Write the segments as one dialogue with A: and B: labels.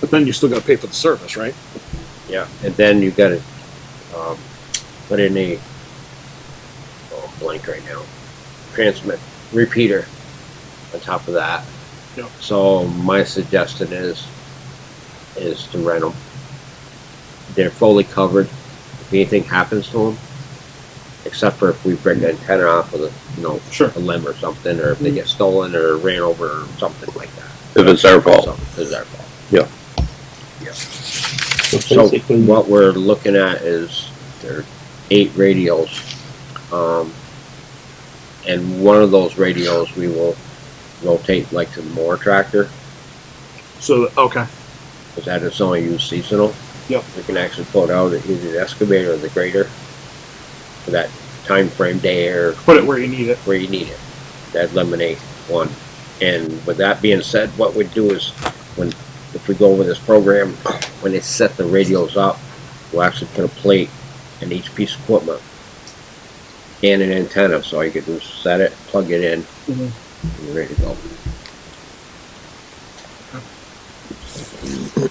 A: But then you still gotta pay for the service, right?
B: Yeah, and then you gotta, um, put in a, oh, I'm blank right now, transmit, repeater on top of that.
A: Yep.
B: So my suggestion is, is to rent them. They're fully covered. If anything happens to them, except for if we break an antenna off with a, you know,
A: Sure.
B: a limb or something, or if they get stolen or ran over or something like that.
C: If it's their fault.
B: So it's our fault.
D: So
B: So
D: basically,
B: what we're looking at is there are eight radios. Um, and one of those radios we will rotate like to the mower tractor,
A: So, okay,
B: because that is only used seasonal.
A: Yep.
B: We can actually pull it out of either the excavator or the grader for that time frame day or
A: put it where you need it.
B: where you need it. That lemonade one. And with that being said, what we do is when if we go over this program, when they set the radios up, we'll actually put a plate in each piece of equipment and an antenna. So all you can do is set it, plug it in,
A: Mhm.
B: and you're ready to go.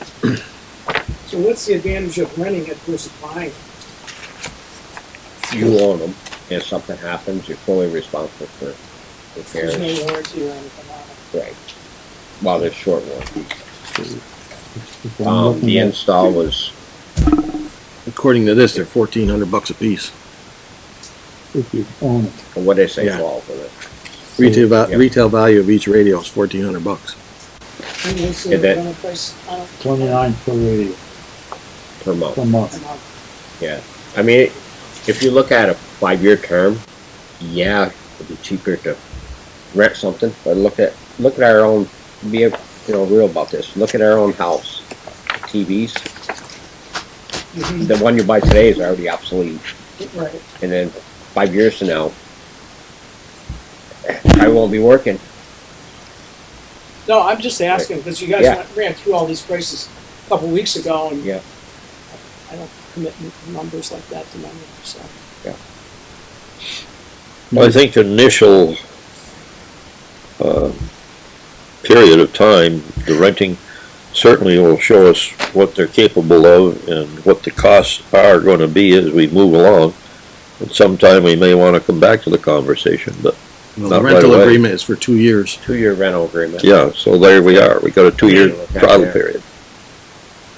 E: So what's the advantage of renting it versus buying?
B: You own them. If something happens, you're fully responsible for
E: There's
B: repairs.
E: no warranty or anything on it.
B: Right. While they're short one.
D: if I'm
B: Um,
D: looking
B: the
D: at-
B: install was
C: According to this, they're fourteen hundred bucks a piece.
D: if you own it,
B: what did I say,
C: Yeah.
B: twelve with it?
C: Retail, va-
B: Yeah.
C: retail value of each radio is fourteen hundred bucks.
E: And what's
B: Yeah,
E: the
B: that-
E: rental price on it?
D: twenty-nine per radio,
B: Per month.
D: per
E: A
D: month.
E: month?
B: I mean, if you look at a five-year term, yeah, it'd be cheaper to rent something. But look at look at our own. Be you know real about this. Look at our own house. TVs.
E: Mhm.
B: The one you buy today is already obsolete,
E: Right,
B: and then five years from now, I won't be working.
E: no, I'm just asking, because you guys
B: Yeah.
E: went- ran through all these prices a couple weeks ago, and
B: Yeah.
E: I don't commit n- numbers like that to memory, so.
C: Well,
D: Well,
C: I
D: I
C: think the initial,
F: uh, period of time, the renting certainly will show us what they're capable of and what the costs are gonna be as we move along. And sometime we may wanna come back to the conversation, but
C: the
F: Not right
C: rental
F: away.
C: agreement is for two years
B: Two-year rental agreement.
F: yeah, so there we are, we got a two-year
B: Yeah,
F: trial
B: yeah.
F: period.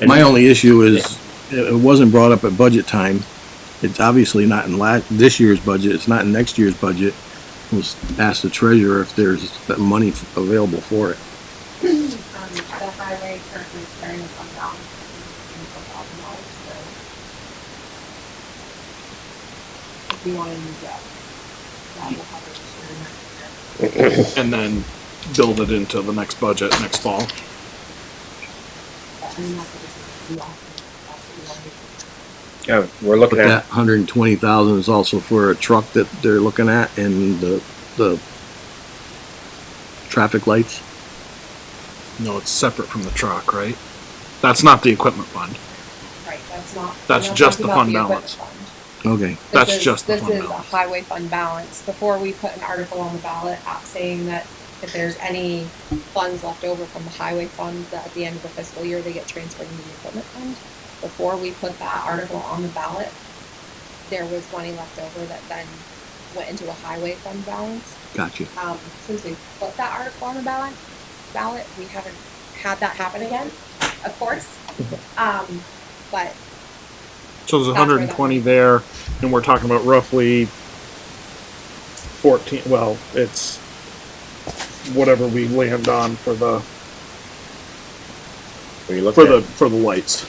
B: And-
C: My only issue is, it it wasn't brought up at budget time. It's obviously not in la, this year's budget, it's not in next year's budget. Was ask the treasurer if there's that money f- available for it.
G: Um, the highway currently is carrying a fund balance of twenty-four thousand dollars, so. If you wanna use that, that will cover it for the next year.
A: And then build it into the next budget next fall.
G: But I mean, that's what this is, you want, that's what you wanna do.
B: Yeah, we're looking
C: But
B: at
C: that hundred and twenty thousand is also for a truck that they're looking at and the, the traffic lights.
A: No, it's separate from the truck, right? That's not the equipment fund.
G: Right, that's not. we're
A: That's
G: not
A: just
G: talking
A: the
G: about
A: fund
G: equipment
A: balance.
G: fund.
C: Okay.
A: That's
G: This is-
A: just the fund
G: This is a
A: balance.
G: highway fund balance. Before we put an article on the ballot out saying that if there's any funds left over from the highway fund, that at the end of the fiscal year, they get transferred into the equipment fund. Before we put that article on the ballot, there was money left over that then went into a highway fund balance.
C: Gotcha.
G: Um, since we put that article on the ballot, ballot, we haven't had that happen again, of course.
A: Mm-hmm.
G: Um, but
A: So there's
G: That's where that-
A: hundred and twenty there, and we're talking about roughly fourteen, well, it's whatever we land on for the,
B: we look
A: for
B: at
A: the, for the lights.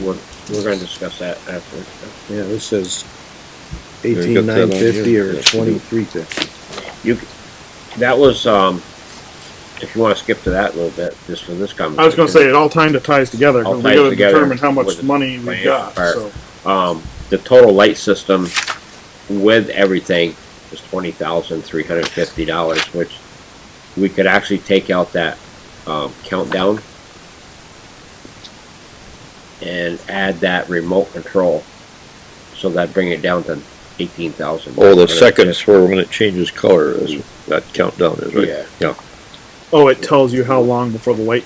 B: we're, we're going to discuss that after.
C: Yeah, this says
F: got
C: eighteen nine fifty
F: that on
C: or
F: here.
C: twenty-three fifty.
B: You, c- that was, um, if you wanna skip to that a little bit, just for this conversation.
A: I was gonna say, it all kind of ties together,
B: All
A: cause we
B: ties
A: gotta
B: together
A: determine how
B: with
A: much
B: the
A: money we
B: financial
A: got,
B: part.
A: so.
B: Um, the total light system with everything was twenty thousand three hundred fifty dollars, which we could actually take out that, um, countdown and add that remote control, so that bring it down to eighteen thousand.
F: Oh, the seconds for when it changes color is, that countdown is right.
B: Yeah.
F: Yeah.
A: Oh, it tells you how long before the light